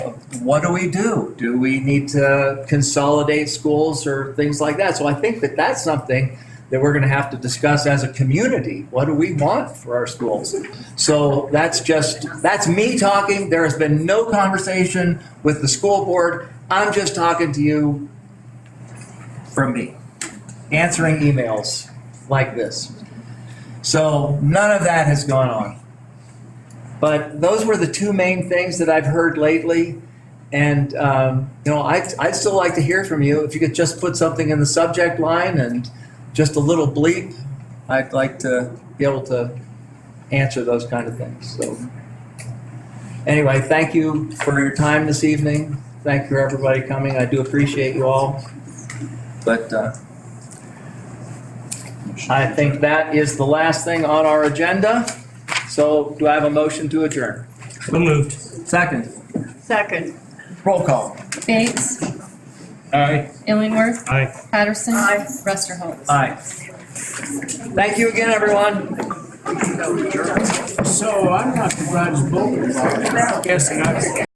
what do we do? Do we need to consolidate schools or things like that? So I think that that's something that we're going to have to discuss as a community. What do we want for our schools? So that's just, that's me talking. There has been no conversation with the school board. I'm just talking to you from me, answering emails like this. So none of that has gone on. But those were the two main things that I've heard lately. And, um, you know, I'd, I'd still like to hear from you. If you could just put something in the subject line and just a little bleep, I'd like to be able to answer those kind of things. So, anyway, thank you for your time this evening. Thank you, everybody, coming. I do appreciate you all. But uh, I think that is the last thing on our agenda. So, do I have a motion to adjourn? So moved. Second. Second. Roll call. Bates, Aye. Illingworth, Aye. Patterson, Aye. Rusterholz. Aye. Thank you again, everyone. So I'm not the Rod's voting, I'm guessing I could